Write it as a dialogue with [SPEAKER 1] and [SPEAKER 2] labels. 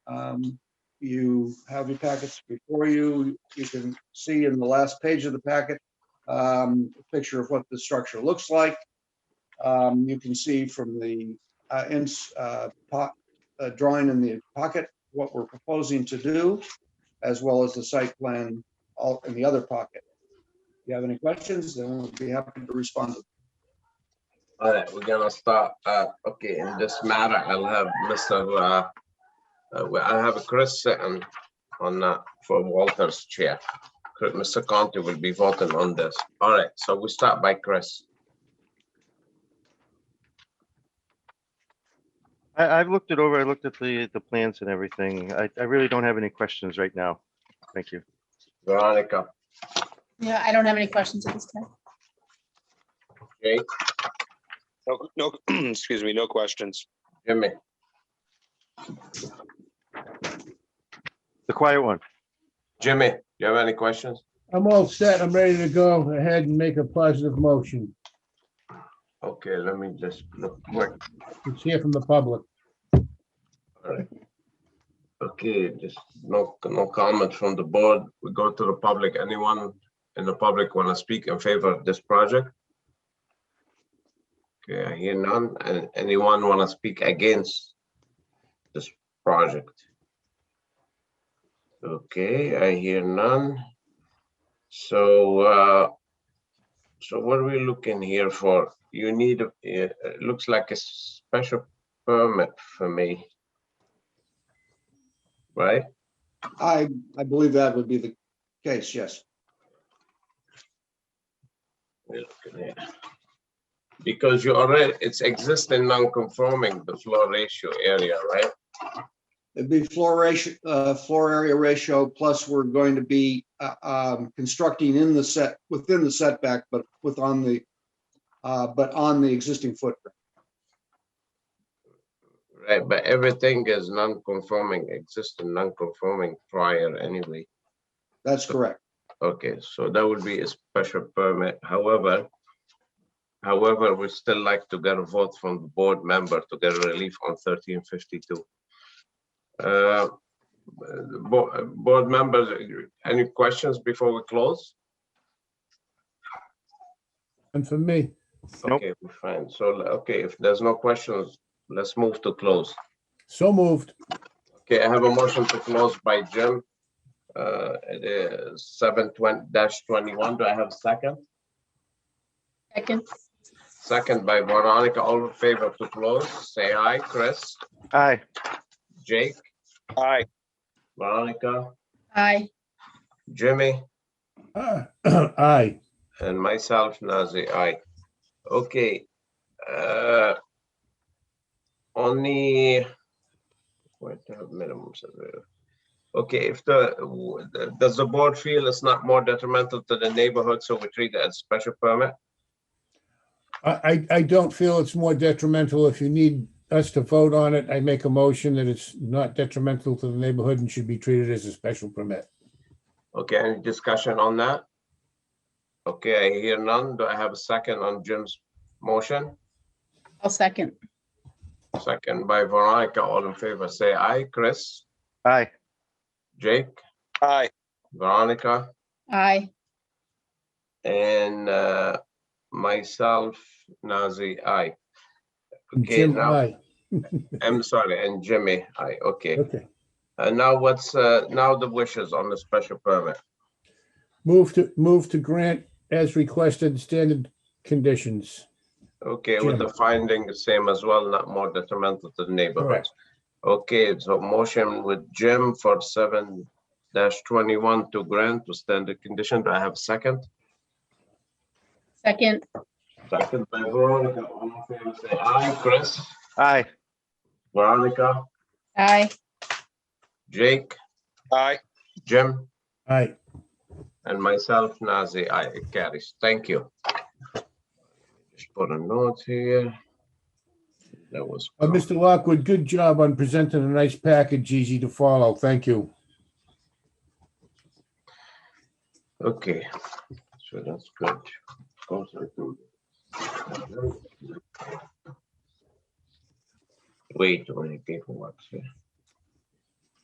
[SPEAKER 1] Um, You have your packets before you. You can see in the last page of the packet, um, a picture of what the structure looks like. Um, You can see from the uh, ins- uh, po- uh, drawing in the pocket, what we're proposing to do, as well as the site plan all in the other pocket. If you have any questions, then we'll be happy to respond.
[SPEAKER 2] All right, we're gonna start. Uh, okay, in this matter, I'll have Mr. Uh, uh, well, I'll have Chris sitting on that for Walter's chair. Cr- Mr. Conti will be voting on this. All right, so we start by Chris.
[SPEAKER 3] I, I've looked it over. I looked at the, the plans and everything. I, I really don't have any questions right now. Thank you.
[SPEAKER 2] Veronica,
[SPEAKER 4] Yeah, I don't have any questions at this time.
[SPEAKER 2] Jake,
[SPEAKER 5] No, no, excuse me, no questions.
[SPEAKER 2] Jimmy,
[SPEAKER 3] The quiet one.
[SPEAKER 2] Jimmy, you have any questions?
[SPEAKER 6] I'm all set. I'm ready to go ahead and make a positive motion.
[SPEAKER 2] Okay, let me just look quick.
[SPEAKER 6] Let's hear from the public.
[SPEAKER 2] Okay, just no, no comment from the board. We go to the public. Anyone in the public want to speak in favor of this project? Okay, I hear none. And anyone want to speak against this project? Okay, I hear none. So, uh, so what are we looking here for? You need, a- it it looks like a special permit for me, right?
[SPEAKER 1] I, I believe that would be the case, yes.
[SPEAKER 2] We're looking at- Because you already, it's existing non-conforming, the floor ratio area, right?
[SPEAKER 1] It'd be floor ratio, uh, floor area ratio, plus we're going to be, uh, um, constructing in the set, within the setback, but with on the, uh, but on the existing footprint.
[SPEAKER 2] Right, but everything is non-conforming, existing non-conforming prior anyway.
[SPEAKER 1] That's correct.
[SPEAKER 2] Okay, so that would be a special permit, however. However, we still like to get a vote from the board member to get relief on thirteen fifty-two. Uh, board, board members, any questions before we close?
[SPEAKER 6] And for me,
[SPEAKER 3] Nope.
[SPEAKER 2] Okay, we're fine. So, okay, if there's no questions, let's move to close.
[SPEAKER 6] so moved.
[SPEAKER 2] Okay, I have a motion to close by Jim. Uh, it is seven twenty twenty-one. Do I have a second?
[SPEAKER 4] Second,
[SPEAKER 2] Second by Veronica. All in favor to close, say aye. Chris,
[SPEAKER 3] Aye.
[SPEAKER 2] Jake,
[SPEAKER 5] Aye,
[SPEAKER 2] Veronica,
[SPEAKER 4] aye.
[SPEAKER 2] Jimmy,
[SPEAKER 6] Ah, Aye.
[SPEAKER 2] and myself, Nazir, aye. Okay. uh, On the what are minimums of the- Okay, if the, w- the- does the board feel it's not more detrimental to the neighborhood, so we treat it as special permit?
[SPEAKER 6] I, I- I don't feel it's more detrimental. If you need us to vote on it, I make a motion that it's not detrimental to the neighborhood and should be treated as a special permit.
[SPEAKER 2] Okay, any discussion on that? Okay, I hear none. Do I have a second on Jim's motion?
[SPEAKER 4] I'll second.
[SPEAKER 2] Second by Veronica. All in favor, say aye. Chris,
[SPEAKER 3] Aye.
[SPEAKER 2] Jake,
[SPEAKER 5] aye,
[SPEAKER 2] Veronica,
[SPEAKER 4] Aye.
[SPEAKER 2] and uh, myself, Nazi, aye.
[SPEAKER 6] And
[SPEAKER 2] Okay,
[SPEAKER 6] Jim,
[SPEAKER 2] now-
[SPEAKER 6] aye.
[SPEAKER 2] I'm sorry, and Jimmy, aye. Okay.
[SPEAKER 6] Okay.
[SPEAKER 2] And now what's, uh, now the wishes on the special permit?
[SPEAKER 6] Move to, move to grant as requested standard conditions.
[SPEAKER 2] Okay, with the finding the same as well, not more detrimental to the neighborhood.
[SPEAKER 6] Correct.
[SPEAKER 2] Okay, so motion with Jim for seven dash twenty-one to grant to standard condition. Do I have a second?
[SPEAKER 4] Second,
[SPEAKER 2] Second by Veronica. All in favor, say aye. Chris,
[SPEAKER 3] Aye.
[SPEAKER 2] Veronica,
[SPEAKER 4] aye.
[SPEAKER 2] Jake,
[SPEAKER 5] aye.
[SPEAKER 2] Jim,
[SPEAKER 6] Aye.
[SPEAKER 2] and myself, Nazi. I it carries. Thank you. Just put a note here. That was.
[SPEAKER 6] Uh, Mr. Lockwood, good job on presenting a nice package, easy to follow. Thank you.
[SPEAKER 2] Okay, so that's good. Goes like the- Wait, when it paperwork here.